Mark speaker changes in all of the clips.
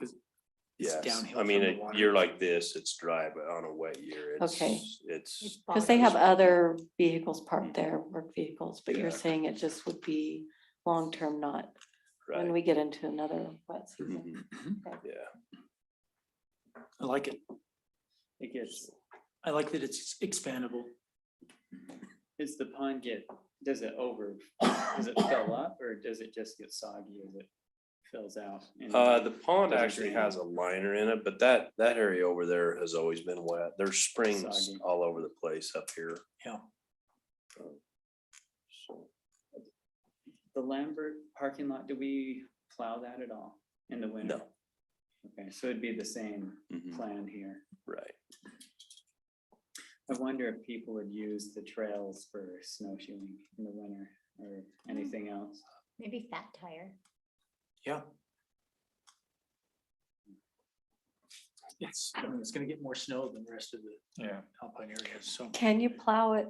Speaker 1: It's
Speaker 2: Yes,
Speaker 1: downhill
Speaker 2: I mean,
Speaker 1: from the
Speaker 2: a
Speaker 1: water.
Speaker 2: year like this, it's dry, but on a wet year, it's,
Speaker 3: Okay.
Speaker 2: it's,
Speaker 3: Cause they have other vehicles parked there, work vehicles, but
Speaker 2: Yeah.
Speaker 3: you're saying it just would be long-term, not when
Speaker 2: right,
Speaker 3: we get into another wet season.
Speaker 2: Mhm, yeah.
Speaker 1: I like it. It gets, I like that it's expandable.
Speaker 4: Is the pond get, does it over, does it fill up or does it just get soggy as it fills out? And
Speaker 2: Uh, the pond
Speaker 4: Doesn't
Speaker 2: actually
Speaker 4: drain.
Speaker 2: has a liner in it, but that, that area over there has always been wet. There's springs
Speaker 4: Soggy.
Speaker 2: all over the place up here.
Speaker 1: Yeah.
Speaker 2: So,
Speaker 4: The Lambert parking lot, do we plow that at all in the winter? Okay, so it'd be the same
Speaker 2: mhm,
Speaker 4: plan here.
Speaker 2: Right.
Speaker 4: I wonder if people would use the trails for snowshoeing in the winter or anything else.
Speaker 5: Maybe fat tire.
Speaker 1: Yeah. It's, I mean, it's gonna get more snow than the rest of the
Speaker 6: Yeah,
Speaker 1: alpine areas, so.
Speaker 3: Can you plow it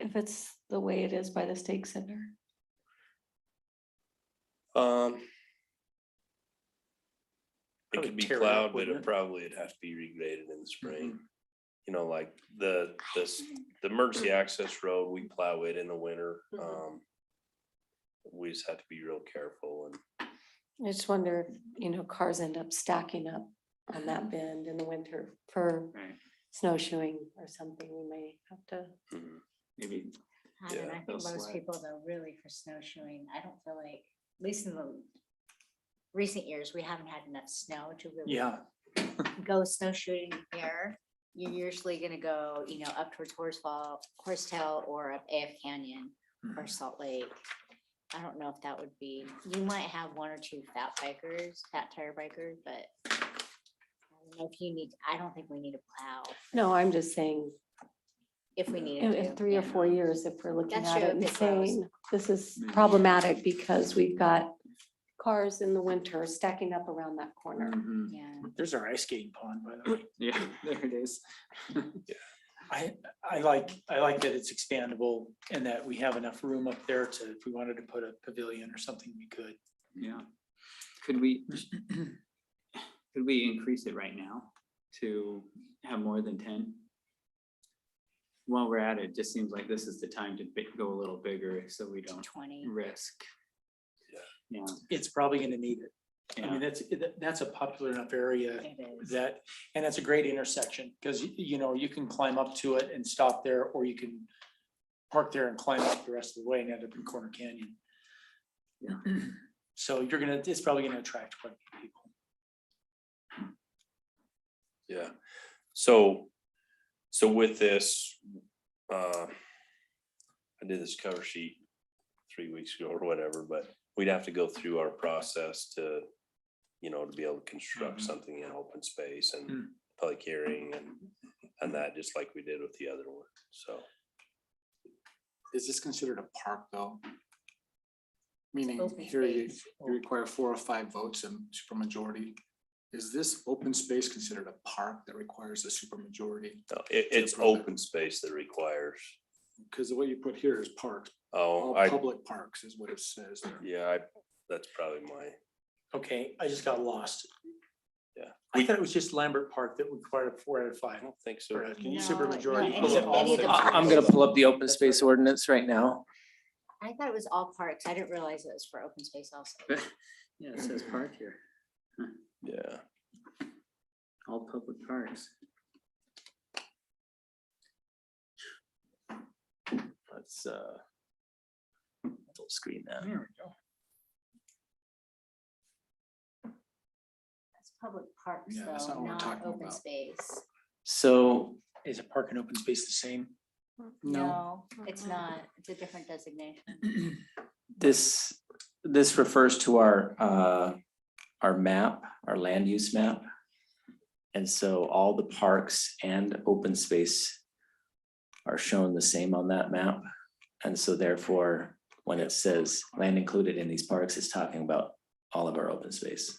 Speaker 3: if it's the way it is by the stake center?
Speaker 2: Um. It
Speaker 1: Probably
Speaker 2: could be
Speaker 1: tear it up,
Speaker 2: plowed, but
Speaker 1: wouldn't
Speaker 2: it
Speaker 1: it?
Speaker 2: probably would have to be regraded in the spring.
Speaker 1: Mhm.
Speaker 2: You know, like the, this, the emergency access road, we plow it in the winter.
Speaker 1: Mm-hmm.
Speaker 3: Mhm.
Speaker 2: Um. We just have to be real careful and
Speaker 3: I just wonder, if you know, cars end up stacking up on that bend in the winter for
Speaker 4: Right.
Speaker 3: snowshoeing or something. We may have to.
Speaker 2: mhm,
Speaker 6: maybe
Speaker 5: I don't know,
Speaker 2: Yeah,
Speaker 5: I think
Speaker 6: those
Speaker 5: most
Speaker 6: sled.
Speaker 5: people though, really for snowshoeing, I don't feel like, at least in the recent years, we haven't had enough snow to really
Speaker 1: Yeah,
Speaker 5: go snowshoeing there. You're usually gonna go, you know, up towards Horsefall, Horsetail or up AF Canyon or
Speaker 1: Mm-hmm.
Speaker 5: Salt Lake. I don't know if that would be, you might have one or two fat bikers, fat tire bikers, but I don't know if you need, I don't think we need to plow
Speaker 3: No, I'm just saying,
Speaker 5: if we need
Speaker 3: in
Speaker 5: to.
Speaker 3: in three or
Speaker 5: yeah.
Speaker 3: four years, if we're looking
Speaker 5: That's
Speaker 3: at
Speaker 5: true,
Speaker 3: it and
Speaker 5: if it grows.
Speaker 3: saying, this is
Speaker 6: Maybe.
Speaker 3: problematic because we've got cars in the winter stacking up around that corner.
Speaker 4: Mm-hmm.
Speaker 5: Yeah.
Speaker 1: there's our ice skating pond, by the way.
Speaker 4: Yeah, there it is.
Speaker 1: I, I like, I like that it's expandable and that we have enough room up there to, if we wanted to put a pavilion or something, we could.
Speaker 4: Yeah. Could we? Could we increase it right now to have more than ten? While we're at it, just seems like this is the time to bi- go a little bigger so we don't
Speaker 5: Twenty.
Speaker 4: risk. Yeah.
Speaker 1: It's probably gonna need it. I
Speaker 4: Yeah,
Speaker 1: mean, that's, that's a popular enough area
Speaker 5: It is.
Speaker 1: that, and it's a great intersection, because you know, you can climb up to it and stop there, or you can park there and climb up the rest of the way and end up in Corner Canyon.
Speaker 4: Yeah.
Speaker 1: So you're gonna, it's probably gonna attract quite a few people.
Speaker 2: yeah. So, so with this, uh. I did this cover sheet three weeks ago or whatever, but we'd have to go through our process to. You know, to be able to construct
Speaker 6: Mm-hmm.
Speaker 1: Mhm.
Speaker 2: something in open space and
Speaker 6: Hmm.
Speaker 1: Mm.
Speaker 2: public hearing and, and that, just like we did with the other one, so.
Speaker 6: is this considered a park though? Meaning
Speaker 5: Open
Speaker 6: here you,
Speaker 5: space.
Speaker 6: you require four or five votes and supermajority. Is this open space considered a park that requires a supermajority?
Speaker 2: No, It, it's open space that requires,
Speaker 6: Because the way you put here is parks,
Speaker 2: oh,
Speaker 6: all
Speaker 2: I,
Speaker 6: public parks is what it says. there.
Speaker 2: yeah, I, that's probably my,
Speaker 1: Okay, I just got lost.
Speaker 2: Yeah.
Speaker 1: I thought it was just Lambert Park that required a four out of five,
Speaker 2: I don't think so.
Speaker 1: or a
Speaker 5: No,
Speaker 1: supermajority.
Speaker 5: no,
Speaker 1: Is it
Speaker 5: any- any
Speaker 1: all
Speaker 5: of the
Speaker 1: six?
Speaker 5: parks.
Speaker 7: I- I'm gonna pull up the open space ordinance right now.
Speaker 5: I thought it was all parks. I didn't realize it was for open space also.
Speaker 4: yeah, it says park here,
Speaker 2: Yeah,
Speaker 4: all public parks.
Speaker 7: Let's, uh, full screen that.
Speaker 4: There we go.
Speaker 5: That's public parks
Speaker 6: Yeah, that's
Speaker 5: though,
Speaker 6: not what we're
Speaker 5: not
Speaker 6: talking
Speaker 5: open
Speaker 6: about.
Speaker 5: space.
Speaker 7: So
Speaker 1: Is a park and open space the same?
Speaker 5: No, it's not. It's a different designation.
Speaker 7: this, this refers to our, uh, our map, our land use map. And so all the parks and open space are shown the same on that map. And so therefore, when it says land included in these parks, it's talking about all of our open space.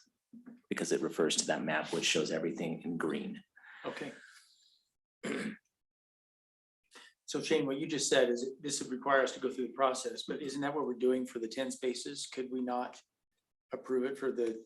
Speaker 7: Because it refers to that map, which shows everything in green.
Speaker 1: Okay. So Shane, what you just said is it- this would require us to go through the process, but isn't that what we're doing for the ten spaces? Could we not approve it for the